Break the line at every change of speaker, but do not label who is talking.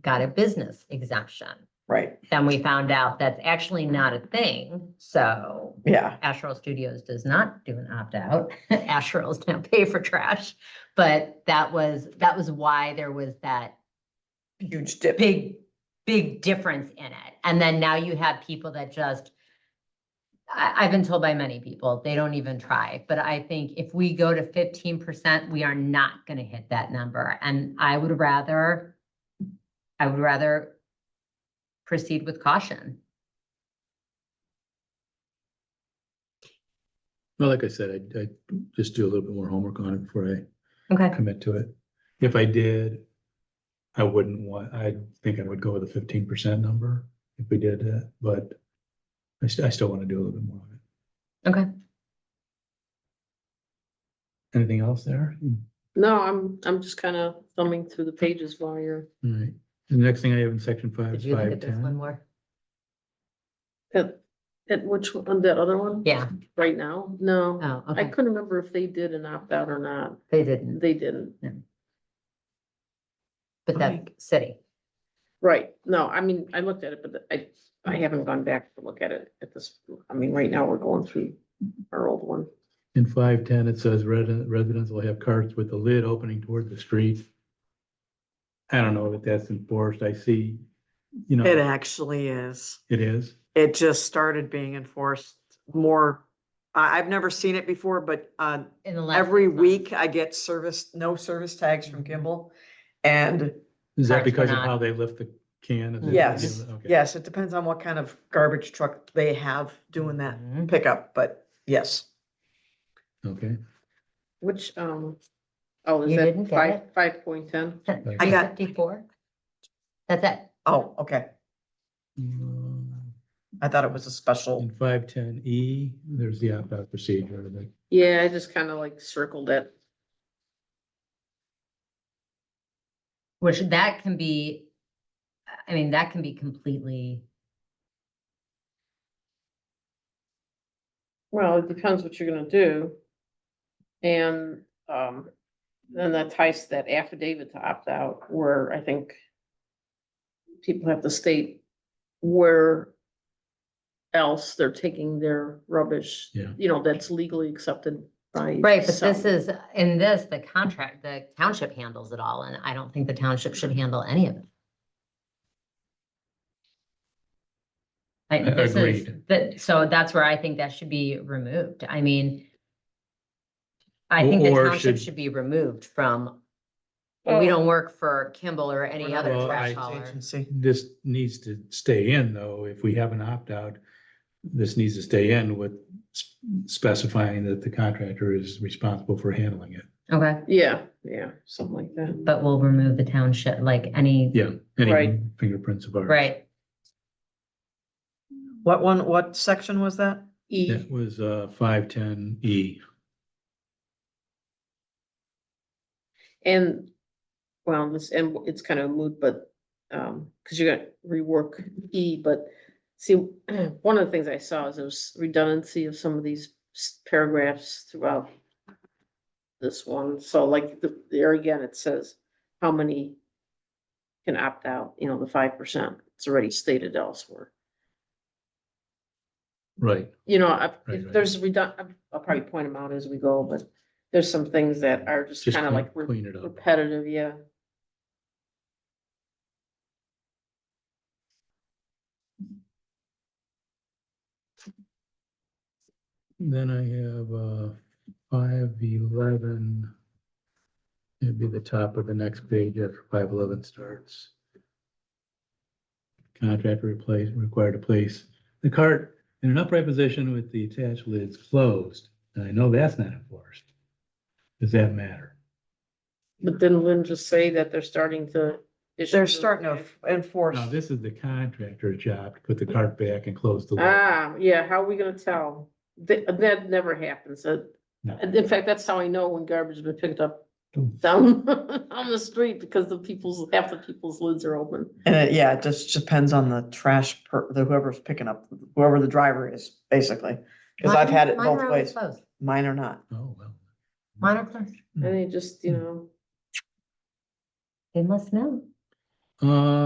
got a business exemption.
right,
Then we found out that's actually not a thing, so
yeah,
Astral Studios does not do an opt-out. Astrals don't pay for trash, but that was, that was why there was that
huge dip.
big, big difference in it. And then now you have people that just, I, I've been told by many people, they don't even try. But I think if we go to fifteen percent, we are not gonna hit that number. And I would rather, I would rather proceed with caution.
Well, like I said, I, I just do a little bit more homework on it before
Okay.
I commit to it. If I did, I wouldn't want, I think I would go with a fifteen percent number if we did that, but I still, I still want to do a little bit more on it.
Okay.
Anything else there?
No, I'm, I'm just kind of thumbing through the pages while you're,
All right. The next thing I have in section five
Did
is
you look
five
at this one
ten.
more?
at, at which, one? that other one?
Yeah,
Right now? No,
oh,
I
okay,
couldn't remember if they did an opt-out or not.
they didn't,
They didn't.
but that's city.
Right, no, I mean, I looked at it, but I, I haven't gone back to look at it at this, I mean, right now we're going through our old one.
In five ten, it says resident, residents will have carts with the lid opening toward the street. I don't know if that's enforced. I see, you know.
It actually is.
It is.
It just started being enforced more. I, I've never seen it before, but, uh,
in the last
every
six months.
week I get service, no service tags from
Mm-hmm.
Kimball. And
Is that
Carts were
because of
not-
how they lift the can? Is it-
Yes,
okay.
yes, it depends on what kind of garbage truck they have doing that
Mhm.
pickup, but yes.
Okay.
Which, um, oh,
You
is
didn't
that
get
five,
it?
five point ten?
I got-
Fifty-four? That's it.
Oh, okay.
Um,
I thought it was a special.
In five ten E, there's the opt-out procedure that
Yeah, I just kind of like circled it.
Which that can be, I mean, that can be completely,
Well, it depends what you're gonna do. And, um, then that ties to that affidavit to opt out where I think people have to state where else they're taking their rubbish.
Yeah.
You know, that's legally accepted by.
right, but this
some-
is, in this, the contract, the township handles it all, and I don't think the township should handle any of it. Like, this is,
Agreed.
that, so that's where I think that should be removed, I mean, I
Or-
think the
or
township
should-
should be removed from, we don't work for Kimball or any other
Well,
trash
I-
hauler.
Agency.
this needs to stay in though. If we have an opt-out, this needs to stay in with s- specifying that the contractor is responsible for handling it.
Okay,
Yeah, yeah, something like that.
but we'll remove the township, like any,
Yeah, any
Right.
fingerprints of ours.
right,
What one, what section was that?
E,
That was uh five ten E.
and, well, this, and it's kind of moot, but, um, because you're gonna rework E, but see, one of the things I saw is there's redundancy of some of these s- paragraphs throughout this one, so like, the there again, it says how many can opt out, you know, the five percent, it's already stated elsewhere.
Right.
you know, I-
Right,
if
right.
there's redund, I'll probably point them out as we go, but there's some things that are just
Just
kind of
clean-
like re-
clean it up.
repetitive, yeah.
Then I have uh five eleven. It'd be the top of the next page after five eleven starts. Contractor replace, required to place the cart in an upright position with the attached lids closed. And I know that's not enforced. Does that matter?
But then Lynn just say that they're starting to. issue
They're
those
starting to
back.
enforce.
Now, this is the contractor's job to put the cart back and close the lid.
Ah, yeah, how are we gonna tell? That, that never happens. Uh,
No. Oh,
and In fact, that's how I know when garbage has been picked up down on the street because the people's, half the people's lids are open.
And it, yeah, it just depends on the trash per, the whoever's picking up, whoever the driver is, basically. Cause I've
Mine-
had it
mine are
both
always
ways.
closed.
Mine are not.
Oh, well.
Mine are closed.
And they just, you know.
They must know.
Uh,